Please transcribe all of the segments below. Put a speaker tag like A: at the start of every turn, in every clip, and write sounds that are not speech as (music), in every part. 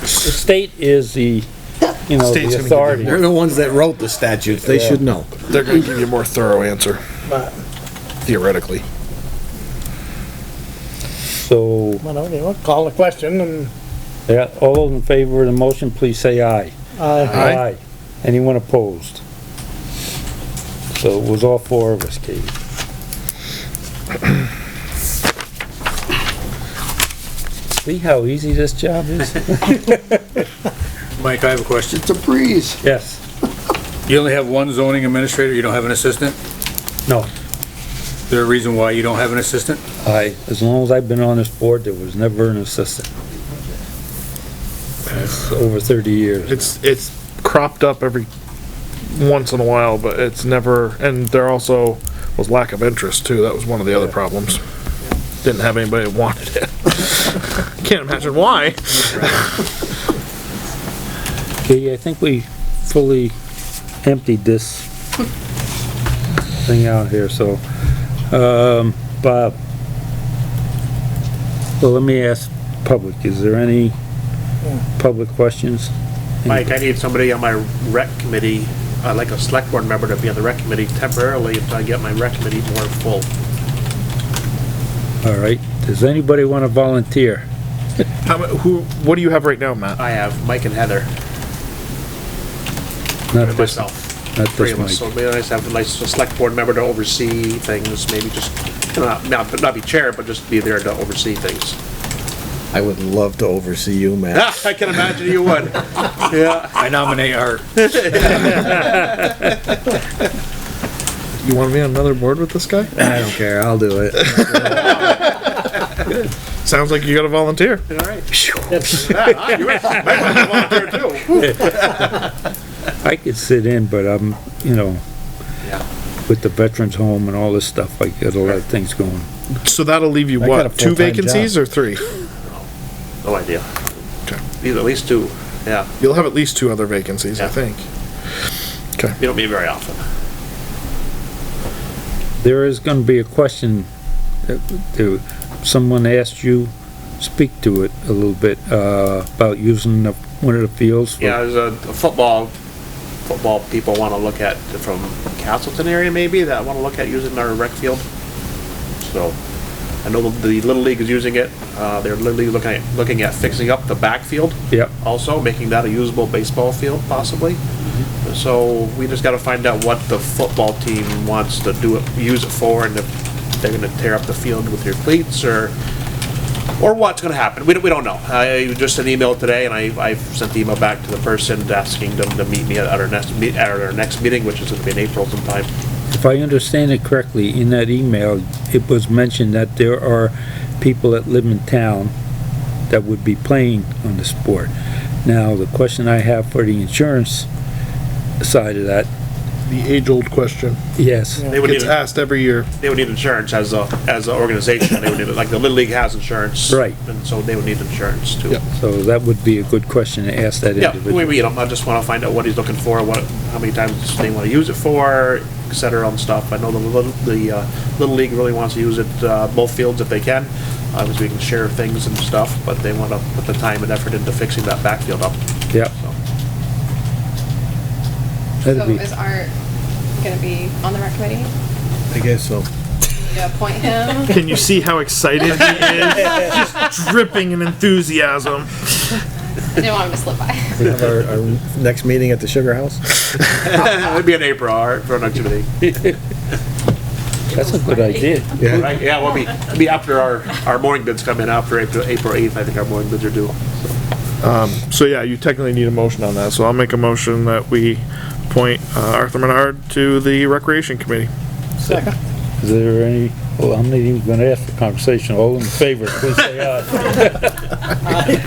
A: the state is the, you know, the
B: State's gonna give you
A: authority.
C: They're the ones that wrote the statutes, they should know.
B: They're gonna give you a more thorough answer,
D: but,
B: theoretically.
A: So,
D: well, okay, well, call the question and,
A: yeah, all those in favor of the motion, please say aye.
D: uh,
B: Aye.
A: Anyone opposed? So it was all four of us, Katie. (clears throat) See how easy this job
B: (laughs)
A: is?
E: Mike, I have a question.
C: It's a breeze.
A: Yes,
E: You only have one zoning administrator, you don't have an assistant?
A: no,
E: Is there a reason why you don't have an assistant?
A: I, as long as I've been on this board, there was never an assistant. That's over thirty years.
B: It's, it's cropped up every once in a while, but it's never, and there also was lack of interest too. That was one of the other problems. Didn't have anybody that wanted it. (laughs) Can't imagine why.
A: Katie, I think we fully emptied this thing out here, so, um, Bob. Well, let me ask public, is there any public questions?
F: Mike, I need somebody on my rec committee, uh, like a select board member to be on the rec committee temporarily until I get my rec committee more full.
A: All right, does anybody wanna volunteer?
B: How, mu- who, what do you have right now, Matt?
F: I have Mike and Heather
A: Not
F: and
A: this,
F: myself,
A: not
F: three
A: this
F: of us. So
A: mic.
F: maybe I just have a nice a select board member to oversee things, maybe just, you know, not, not- not be chair, but just be there to oversee things. (laughs)
C: I would love to oversee you, man.
F: Ah, I can imagine you would. (laughs) Yeah,
E: I nominate Art.
B: You want to be on another board with this guy?
C: I don't care, I'll do it.
B: Sounds like you got to volunteer.
F: all right. Yeah, you would- Mike would be volunteer too.
A: I could sit in, but I'm, you know,
F: Yeah.
A: with the veterans home and all this stuff, I got a lot of things going.
B: So that'll leave you
C: I got a
B: what, two
C: full-time
B: vacancies or three?
F: No idea.
B: Okay.
F: These at least two, yeah.
B: You'll have at least two other vacancies, I
F: Yeah.
B: think.
F: You don't meet very often.
A: There is gonna be a question that, that someone asked you, speak to it a little bit, uh, about using the, one of the fields. for-
F: Yeah, there's a a football, football people want to look at from Castleton area maybe that want to look at using our rec field. So I know the Little League is using it. Uh, they're literally looking at, looking at fixing up the backfield
A: Yep,
F: also, making that a usable baseball field possibly. So we just got to find out what the football team wants to do it, use it for and if they're going to tear up the field with their cleats or or what's going to happen. We don't, we don't know. I just an email today, and I, I sent the email back to the person asking them to meet me at our next meet at our next meeting, which is going to be in April sometime.
A: if I understand it correctly, in that email, it was mentioned that there are people that live in town that would be playing on the sport. Now, the question I have for the insurance side of that,
B: The age-old question.
A: yes,
F: They would
B: Gets
F: need
B: asked every year.
F: they would need insurance as a as an organization. They would need like the Little League has insurance,
A: Right.
F: And so they would need insurance too.
B: Yep.
A: so that would be a good question to ask that
F: Yeah, we
A: individual.
F: read them, I just wanna find out what he's looking for, what, how many times they wanna use it for, et cetera, and stuff. I know the little, the, uh, Little League really wants to use it, uh, both fields if they can. Obviously, we can share things and stuff, but they wanna put the time and effort into fixing that backfield up,
A: Yeah,
F: so. (laughs)
A: that'd
G: So
A: be,
G: Oh, is Art gonna be on the rec committee?
C: I guess so.
G: Yeah, appoint him?
B: Can you see how excited he is? (laughs) Just dripping in enthusiasm.
G: I didn't want him to slip by. (laughs)
C: We have our, our next meeting at the Sugar House?
F: It'd be in April, all right, for an activity.
A: that's a good idea.
C: Yeah.
F: Right, yeah, we'll be, it'll be after our, our morning bids come in, after April, April eighth, I think our morning bids are due.
B: So yeah, you technically need a motion on that, so I'll make a motion that we appoint uh, Arthur Menard to the Recreation Committee.
A: Is there any, well, I'm not even gonna ask for conversation, all in favor, please say aye.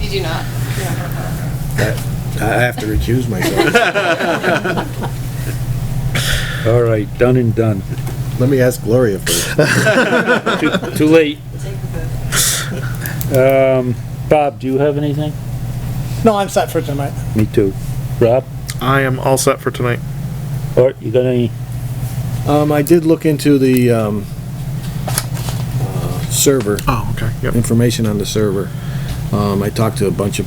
G: You do not.
C: I have to recuse myself.
A: All right, done and done.
C: (laughs) Let me ask Gloria first.
A: Too too late. Um, Bob, do you have anything?
D: no, I'm set for tonight.
A: Me too. Rob,
B: I am all set for tonight.
A: Art, you got any?
C: Um, I did look into the, um, uh, server,
B: Oh, okay. Yep.
C: Ah. information on the server. Um, I talked to a bunch of